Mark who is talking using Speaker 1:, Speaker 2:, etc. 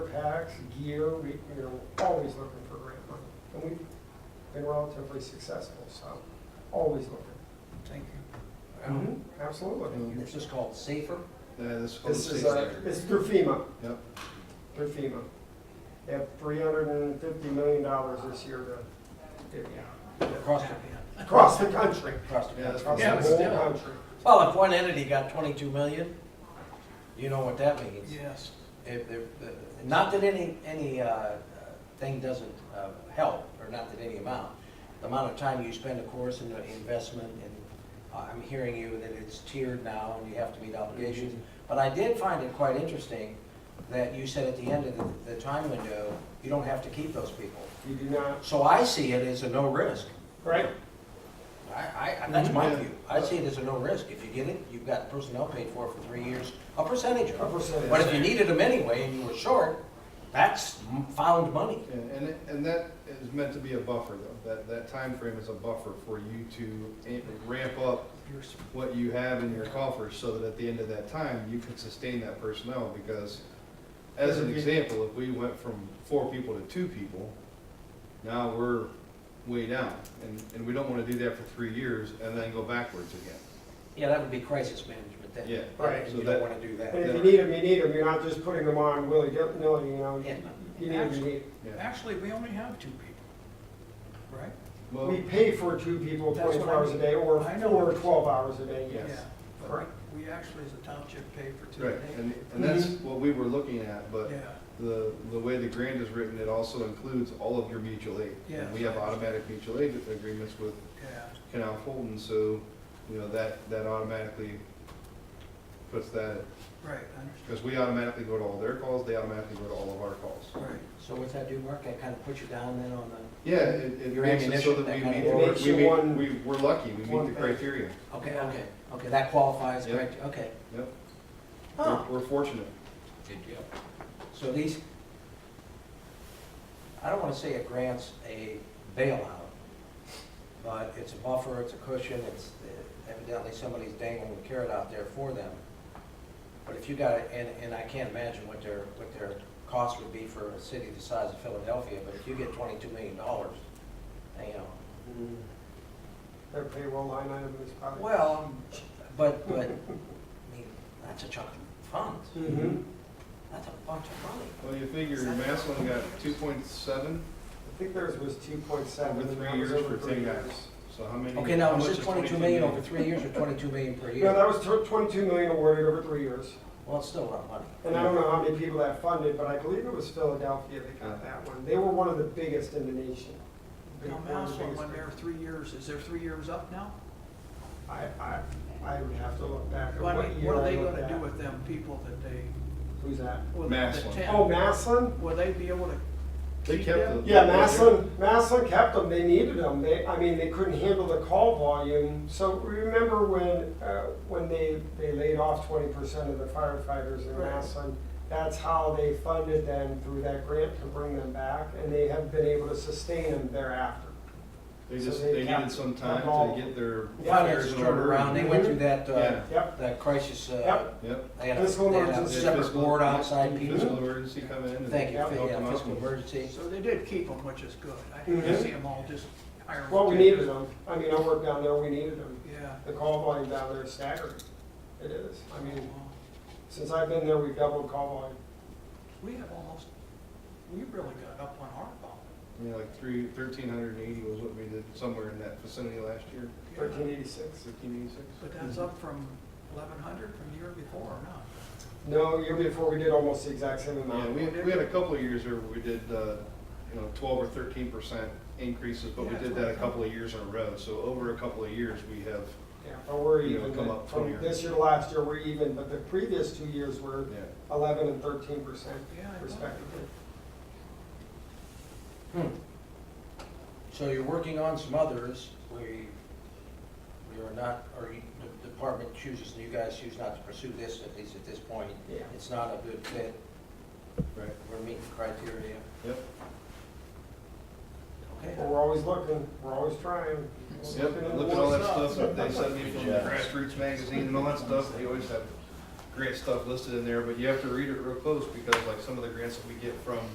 Speaker 1: bags, gear, we, we are always looking for grant money. And we've been relatively successful, so always looking.
Speaker 2: Thank you.
Speaker 3: Mm-hmm.
Speaker 1: Mhm, Absolutely.
Speaker 2: And This is called Safer.
Speaker 4: Yeah, this whole
Speaker 1: This
Speaker 4: state's
Speaker 1: is, uh,
Speaker 4: there.
Speaker 1: this is through FEMA,
Speaker 4: Yep.
Speaker 1: through FEMA. They have three hundred and fifty million dollars this year to give you.
Speaker 2: Across the,
Speaker 1: Across the country,
Speaker 2: across the.
Speaker 4: Yeah, that's
Speaker 1: across
Speaker 4: probably.
Speaker 1: the
Speaker 3: Yeah, but
Speaker 1: whole
Speaker 3: still.
Speaker 1: country.
Speaker 3: Well, if one entity got 22 million, you know what that means.
Speaker 2: Yes.
Speaker 3: If they're- the- Not that any, any uh, uh, thing doesn't uh, help, or not that any amount. The amount of time you spend, of course, in the investment, and uh, I'm hearing you that it's tiered now and you have to meet obligations.
Speaker 2: Mm-hmm.
Speaker 3: But I did find it quite interesting that you said at the end of the- the time window, you don't have to keep those people.
Speaker 1: You do not,
Speaker 3: So I see it as a no risk.
Speaker 1: right?
Speaker 3: I, I, that's my
Speaker 4: Yeah.
Speaker 3: view. I see it as a no risk. If you get it, you've got personnel paid for for three years, a percentage
Speaker 1: A
Speaker 3: of it.
Speaker 1: percentage.
Speaker 3: But if you needed them anyway and you were short, that's m- found money.
Speaker 4: Yeah, And, it- and that is meant to be a buffer though, that, that frame is a buffer for you to a- ramp up what you have in your coffers so that at the end of that time, you can sustain that personnel because as an example, if we went from four people to two people, now we're way down. And, and we don't want to do that for three years and then go backwards again.
Speaker 3: Yeah, that would be crisis management then.
Speaker 4: Yeah.
Speaker 1: Right.
Speaker 3: And
Speaker 4: So
Speaker 3: you
Speaker 4: that-
Speaker 3: don't wanna do
Speaker 1: And
Speaker 3: that.
Speaker 1: if you need them, you need them, you're not just putting them on willy-nilly, you know,
Speaker 3: Yeah.
Speaker 1: you need 'em, you need 'em.
Speaker 4: Yeah.
Speaker 2: Actually, we only have two people, right?
Speaker 4: Well,
Speaker 1: We pay for two people
Speaker 2: That's what
Speaker 1: twenty-four
Speaker 2: I
Speaker 1: hours a
Speaker 2: mean.
Speaker 1: day, or
Speaker 2: I know.
Speaker 1: four, twelve hours a day, yes.
Speaker 2: Yeah.
Speaker 1: Correct.
Speaker 2: We actually, as a township, pay for two.
Speaker 4: right,
Speaker 2: days.
Speaker 4: and, and that's what we were looking at, but
Speaker 2: Yeah,
Speaker 4: The, the way the grant is written, it also includes all of your mutual aid.
Speaker 2: Yeah.
Speaker 4: And We have automatic mutual aid agreements with
Speaker 2: yeah.
Speaker 4: Canal Fulton, so, you know, that, that automatically puts that,
Speaker 2: Right, I understand.
Speaker 4: because we automatically go to all their calls, they automatically go to all of our calls.
Speaker 2: Right.
Speaker 3: So what's that do, Mark? I kinda put you down then on the,
Speaker 4: Yeah, it, it
Speaker 3: Your
Speaker 4: makes it
Speaker 3: ammunition,
Speaker 4: so that we
Speaker 3: that kind
Speaker 4: meet,
Speaker 3: of
Speaker 1: thing. It makes
Speaker 4: we
Speaker 1: you one-
Speaker 4: meet, we, we're lucky, we meet
Speaker 1: one
Speaker 4: the
Speaker 1: thing.
Speaker 4: criteria.
Speaker 3: okay,
Speaker 1: Yeah.
Speaker 3: okay, okay, that qualifies,
Speaker 4: Yeah.
Speaker 3: correct, okay.
Speaker 4: Yep,
Speaker 3: Huh.
Speaker 4: We're- we're fortunate.
Speaker 3: So these, I don't want to say it grants a bailout, but it's a buffer, it's a cushion, it's evidently somebody's dangling a carrot out there for them. But if you got, it, and, and I can't imagine what their, what their cost would be for a city the size of Philadelphia, but if you get twenty-two million dollars, you know,
Speaker 1: Their Mm-hmm. payroll line item is probably.
Speaker 3: well, but, but, I mean, that's a chunk of funds,
Speaker 1: Mhm.
Speaker 3: that's a bunch of money.
Speaker 4: Well, you figure Maslin got two point seven
Speaker 1: I think theirs was two point seven.
Speaker 4: over three years for ten guys, so how many?
Speaker 3: Okay,
Speaker 4: how
Speaker 3: now, is
Speaker 4: much
Speaker 3: this twenty-two million over three years or twenty-two million per
Speaker 1: No,
Speaker 3: year?
Speaker 1: that was tw- twenty-two million awarded over three years,
Speaker 3: Well, it's still a lot of money.
Speaker 1: and I don't know how many people that funded, but I believe it was Philadelphia that got that one. They were one of the biggest in the nation. Big-
Speaker 2: Now,
Speaker 1: one of the
Speaker 2: Maslin,
Speaker 1: biggest.
Speaker 2: when they're three years, is their three years up now?
Speaker 1: I, I, I would have to look back at
Speaker 2: What
Speaker 1: what year
Speaker 2: what are
Speaker 1: I
Speaker 2: they
Speaker 1: looked
Speaker 2: gonna do
Speaker 1: at.
Speaker 2: with them people that they,
Speaker 1: Who's that?
Speaker 2: well, the- the
Speaker 4: Maslin.
Speaker 2: ten?
Speaker 1: Oh, Maslin?
Speaker 2: Will they be able to
Speaker 4: They
Speaker 2: keep
Speaker 4: kept
Speaker 2: them?
Speaker 4: the-
Speaker 1: Yeah, Maslin, Maslin kept them, they needed them, they, I mean, they couldn't handle the call volume. So remember when, uh, when they, they laid off twenty percent of the firefighters in
Speaker 2: Right.
Speaker 1: Maslin? That's how they funded them through that grant to bring them back, and they have been able to sustain them thereafter.
Speaker 4: They
Speaker 1: So
Speaker 4: just,
Speaker 1: they
Speaker 4: they
Speaker 1: kept
Speaker 4: needed some time
Speaker 1: involved.
Speaker 4: to get their affairs
Speaker 3: Finances
Speaker 4: in
Speaker 3: turned
Speaker 4: order.
Speaker 3: around, they went through that, uh,
Speaker 4: Yeah.
Speaker 1: Yep,
Speaker 3: that crisis, uh,
Speaker 1: Yep.
Speaker 4: Yep.
Speaker 3: they had a,
Speaker 1: Fiscal
Speaker 3: they had a
Speaker 1: emergency.
Speaker 3: separate
Speaker 4: Fiscal-
Speaker 3: board outside
Speaker 4: Fiscal
Speaker 3: people.
Speaker 4: emergency come in and
Speaker 3: Thank you,
Speaker 4: help
Speaker 3: yeah,
Speaker 4: them out.
Speaker 3: fiscal emergency.
Speaker 2: So they did keep them, which is good. I didn't
Speaker 1: Mhm.
Speaker 2: see them all just hiring.
Speaker 1: well, we
Speaker 2: people.
Speaker 1: needed them, I mean, I worked down there, we needed them.
Speaker 2: Yeah.
Speaker 1: The call volume down there is staggering, it is. I mean,
Speaker 2: Well,
Speaker 1: since I've been there, we've doubled call volume.
Speaker 2: We have almost, we really got up on our ball.
Speaker 4: Yeah, like three, thirteen hundred and eighty was what we did somewhere in that vicinity last year,
Speaker 1: Thirteen eighty-six.
Speaker 4: fifteen eighty-six.
Speaker 2: But that's up from eleven hundred from the year before, or not?
Speaker 1: No, year before, we did almost the exact same
Speaker 4: Yeah,
Speaker 1: amount.
Speaker 4: we, we had a couple of years where we did, uh, you know, twelve or thirteen percent increases, but we
Speaker 2: Yeah,
Speaker 4: did
Speaker 2: that's
Speaker 4: that a
Speaker 2: right.
Speaker 4: couple of years in a row, so over a couple of years, we have,
Speaker 1: Yeah, but we're
Speaker 4: You know,
Speaker 1: even,
Speaker 4: come up
Speaker 1: from
Speaker 4: 20.
Speaker 1: this year, to last year, we're even, but the previous two years were
Speaker 4: yeah.
Speaker 1: eleven and thirteen percent
Speaker 2: Yeah, I know.
Speaker 1: respectively.
Speaker 3: Hmm. So you're working on some others where you, you're not, or you- the department chooses, and you guys choose not to pursue this, at least at this point.
Speaker 1: Yeah.
Speaker 3: It's not a good fit,
Speaker 4: Right,
Speaker 3: we're meeting criteria,
Speaker 4: yep.
Speaker 3: okay?
Speaker 1: But we're always looking, we're always trying. always
Speaker 4: Yep,
Speaker 1: looking
Speaker 4: I
Speaker 1: into
Speaker 4: look at all that
Speaker 1: what's up.
Speaker 4: stuff, that they sent me from the Grassroots magazine and all that stuff, they always have grant stuff listed in there, but you have to read it real close because like some of the grants that we get from